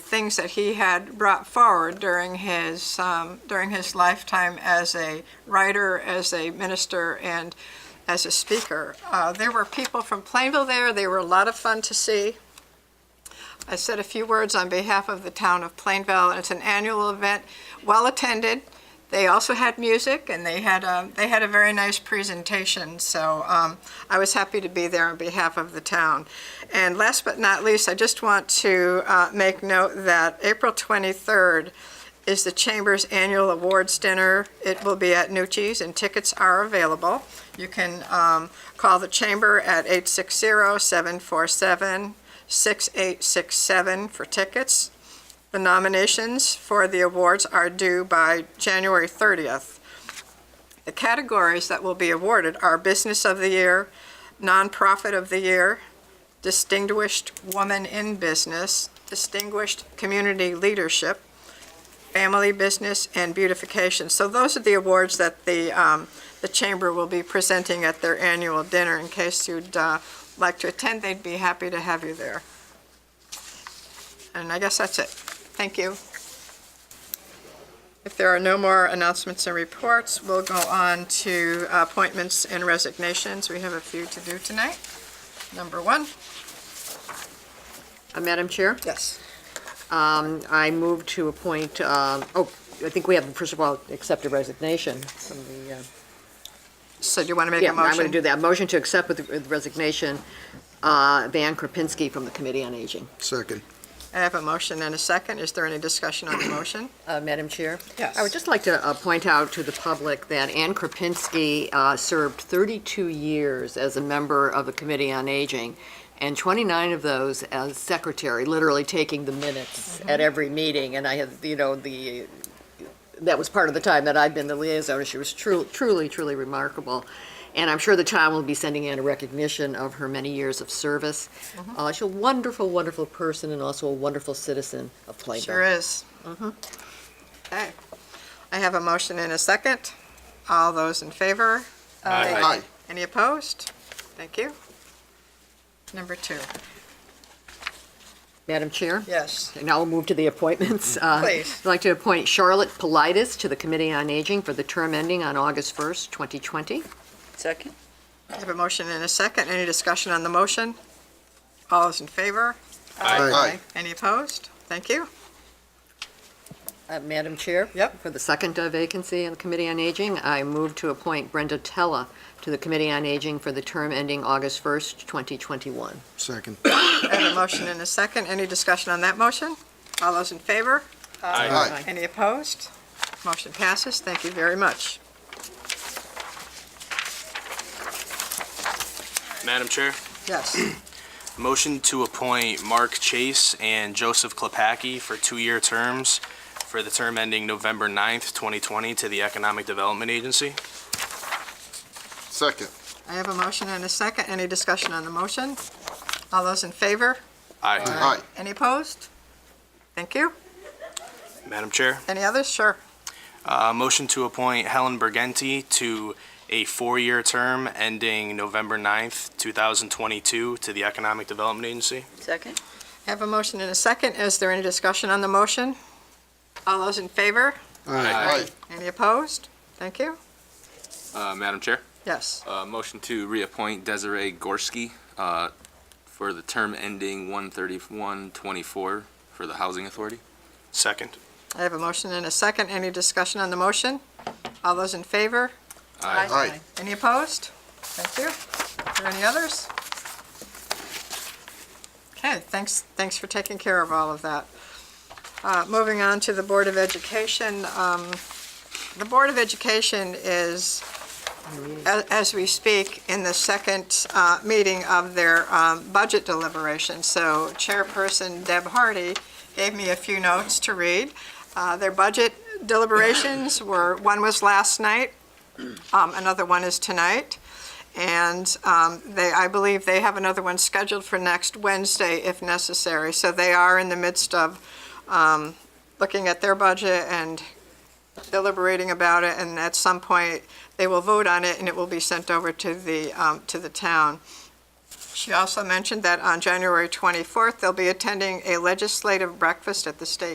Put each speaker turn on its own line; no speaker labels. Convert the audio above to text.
things that he had brought forward during his, um, during his lifetime as a writer, as a minister, and as a speaker. Uh, There were people from Plainville there, they were a lot of fun to see. I said a few words on behalf of the town of Plainville, and it's an annual event, well-attended. They also had music, and they had, um, they had a very nice presentation, so um, I was happy to be there on behalf of the town. And last but not least, I just want to uh, make note that April 23rd is the Chamber's annual awards dinner. It will be at Nucci's, and tickets are available. You can um, call the Chamber at 860-747-6867 for tickets. The nominations for the awards are due by January 30th. The categories that will be awarded are Business of the Year, Nonprofit of the Year, Distinguished Woman in Business, Distinguished Community Leadership, Family Business, and Beautification. So those are the awards that the, um, the Chamber will be presenting at their annual dinner. In case you'd uh, like to attend, they'd be happy to have you there. And I guess that's it. Thank you. If there are no more announcements and reports, we'll go on to appointments and resignations. We have a few to do tonight. Number one.
Uh, Madam Chair,
Yes.
um, I move to appoint, um, oh, I think we have, first of all, accept a resignation from the, uh,
So do you want to make
yeah,
a motion?
I'm going to do that. Motion to accept with with resignation uh, Van Kropinski from the Committee on Aging.
Second.
I have a motion and a second. Is there any discussion on the motion?
Uh, Madam Chair?
Yes.
I would just like to uh, point out to the public that Ann Kropinski uh, served 32 years as a member of the Committee on Aging, and 29 of those as secretary, literally taking the minutes at every meeting. And I had, you know, the, that was part of the time that I'd been the liaison, and she was truly, truly, truly remarkable. And I'm sure the town will be sending in a recognition of her many years of service. Uh, She's a wonderful, wonderful person and also a wonderful citizen of Plainville.
Sure is.
Mm-hmm.
Okay. I have a motion and a second. All those in favor?
Aye.
Any opposed? Thank you. Number two.
Madam Chair?
Yes.
Now we'll move to the appointments. Uh,
Please.
I'd like to appoint Charlotte Politis to the Committee on Aging for the term ending on August 1st, 2020.
Second?
I have a motion and a second. Any discussion on the motion? All those in favor?
Aye.
Any opposed? Thank you.
Uh, Madam Chair?
Yep.
For the second uh, vacancy on the Committee on Aging, I move to appoint Brenda Tella to the Committee on Aging for the term ending August 1st, 2021.
Second.
I have a motion and a second. Any discussion on that motion? All those in favor?
Aye.
Any opposed? Motion passes. Thank you very much.
Madam Chair,
Yes.
motion to appoint Mark Chase and Joseph Klepacki for two-year terms for the term ending November 9th, 2020 to the Economic Development Agency.
Second.
I have a motion and a second. Any discussion on the motion? All those in favor?
Aye.
Aye.
Any opposed? Thank you.
Madam Chair,
Any others? Sure.
uh, motion to appoint Helen Burgenti to a four-year term ending November 9th, 2022 to the Economic Development Agency.
Second?
I have a motion and a second. Is there any discussion on the motion? All those in favor?
Aye.
Any opposed? Thank you.
Uh, Madam Chair,
Yes.
uh, motion to reappoint Desiree Gorski, uh, for the term ending one thirty-one twenty-four for the Housing Authority.
Second.
I have a motion and a second. Any discussion on the motion? All those in favor?
Aye.
Any opposed? Thank you. Are there any others? Okay, thanks, thanks for taking care of all of that. Uh, Moving on to the Board of Education. um, The Board of Education is, a- as we speak, in the second uh, meeting of their um, budget deliberation. So Chairperson Deb Hardy gave me a few notes to read. Uh, Their budget deliberations were, one was last night, um, Another one is tonight, and um, they, I believe they have another one scheduled for next Wednesday if necessary. So they are in the midst of um, looking at their budget and deliberating about it, and at some point, they will vote on it, and it will be sent over to the, um, to the town. She also mentioned that on January 24th, they'll be attending a legislative breakfast at the State